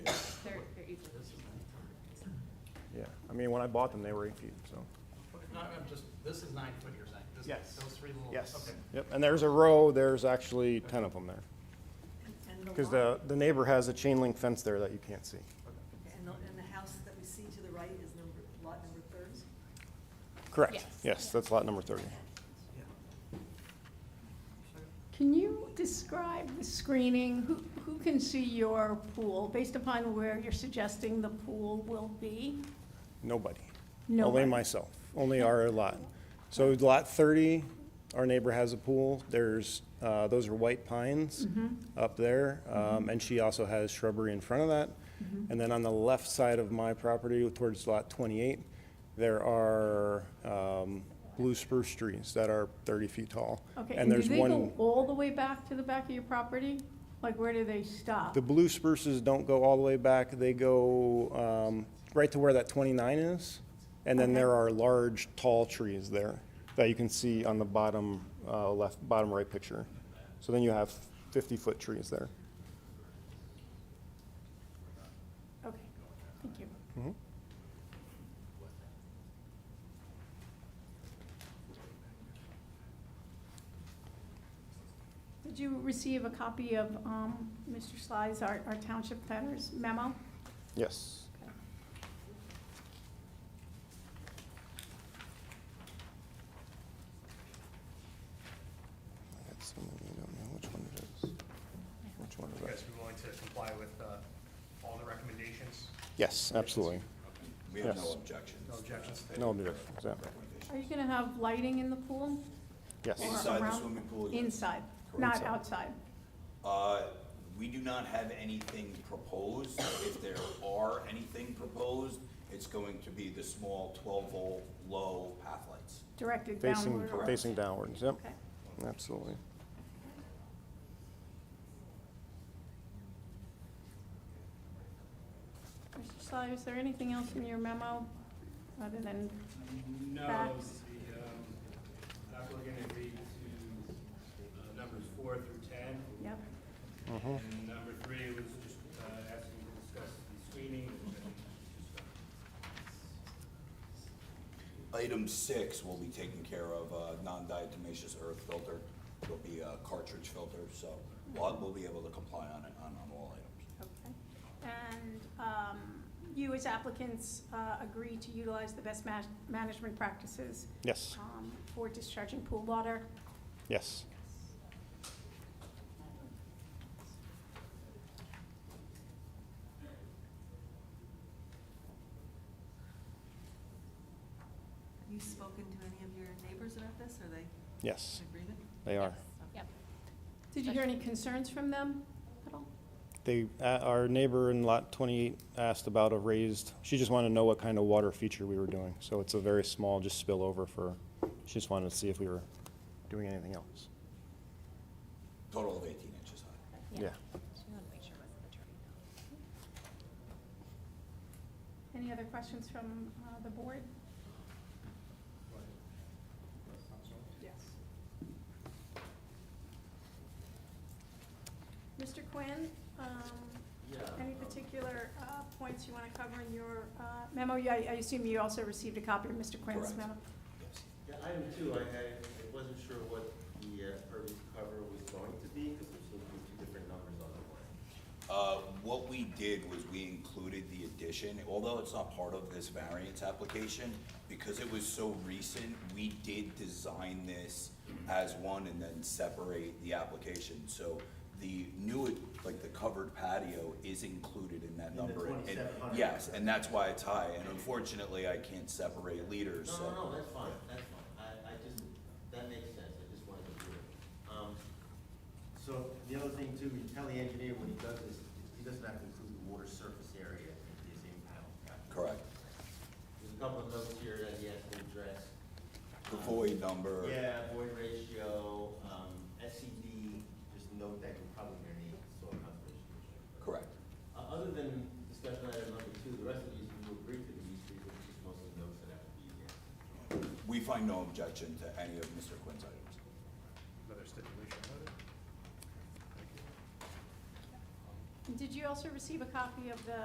Yeah, I mean, when I bought them, they were eight feet, so. No, I'm just, this is nine foot, you're saying? This- Yes. Those three little. Okay. Yep, and there's a row, there's actually ten of them there. And Because lot- the, the neighbor has a chain link fence there that you can't see. And the, and the house that we see to the right is number, lot number thirty? Correct, Yes. yes, that's lot number thirty. Can you describe the screening? Who, who can see your pool based upon where you're suggesting the pool will be? Nobody. Only Nobody. myself, only our lot. So lot thirty, our neighbor has a pool, there's, uh, those are white pines Mm-hmm. up there. Um, and she also has shrubbery in front of that. Mm-hmm. And then on the left side of my property towards lot twenty-eight, there are, um, blue spruce trees that are thirty feet tall. Okay, And there's one. Do they go all the way back to the back of your property? Like, where do they stop? The blue spruces don't go all the way back, they go um, right to where that 29 is. And then there are large, tall trees there that you can see on the bottom uh, left, bottom right picture. So then you have 50-foot trees there. Okay, thank you. Mm-hmm. Did you receive a copy of um, Mr. Sly's, our our township planner's memo? Yes. I got so many, I don't know which one it is. Which one You is guys that? be willing to comply with uh, all the recommendations? Yes, absolutely. We have no Yes. objections. No objections? No, exactly. Are you going to have lighting in the pool? Yes. or Inside the around- swimming pool, yes. Inside, not Inside. outside. Uh, We do not have anything proposed. If there are anything proposed, it's going to be the small 12-volt low path lights. Directed Facing, downward. facing downwards, yep, Okay. absolutely. Mr. Sly, is there anything else in your memo other than, No, the um, Facts. applicant agreed to uh, numbers four through 10. yep, And number three was just uh, asking to discuss the screening. and then just, Item six will be taken care of, uh, non-diatomaceous earth filter. It'll be a cartridge filter, so we'll we'll be able to comply on it, on on all items. okay. And um, you as applicants uh, agree to utilize the best ma- management practices Yes, um, for discharging pool water? yes. Have you spoken to any of your neighbors about this? Are they Yes, in agreement? they are. Yep. Did you hear any concerns from them at all? They, uh, our neighbor in lot 28 asked about a raised, she just wanted to know what kind of water feature we were doing. So it's a very small, just spillover for, she just wanted to see if we were doing anything else. Total of 18 inches high. Yeah. Just wanted to make sure it wasn't the turning down. Any other questions from uh, the board? Yes. Mr. Quinn, um, any particular uh, points you want to cover in your uh, memo? Yeah, I I assume you also received a copy of Mr. Quinn's Correct. memo? Yes. Yeah, item two, I, I I wasn't sure what the uh, pervious cover was going to be, because there seemed to be two different numbers on the one. Uh, What we did was we included the addition, although it's not part of this variance application, because it was so recent, we did design this as one and then separate the application. So the new, like the covered patio is included in that In the number. And- 2700. Yes, and that's why it's high, and unfortunately, I can't separate leaders, No, so. no, no, that's fine, that's fine, I, I just, that makes sense, I just wanted to do it. Um, So, the other thing too, you tell the engineer when he does this, he doesn't have to include the water surface area in his impound calculation. Correct. There's a couple of notes here that he has to address. The void number. Yeah, void ratio, um, SCD, just note that you're probably gonna need soil conservation. measure. Correct. Uh, Other than discussion item number two, the rest of these, we will agree to these, these are just mostly notes that have to be, uh, We find no objection to any of Mr. Quinn's items. Another stipulation, was it? Did you also receive a copy of the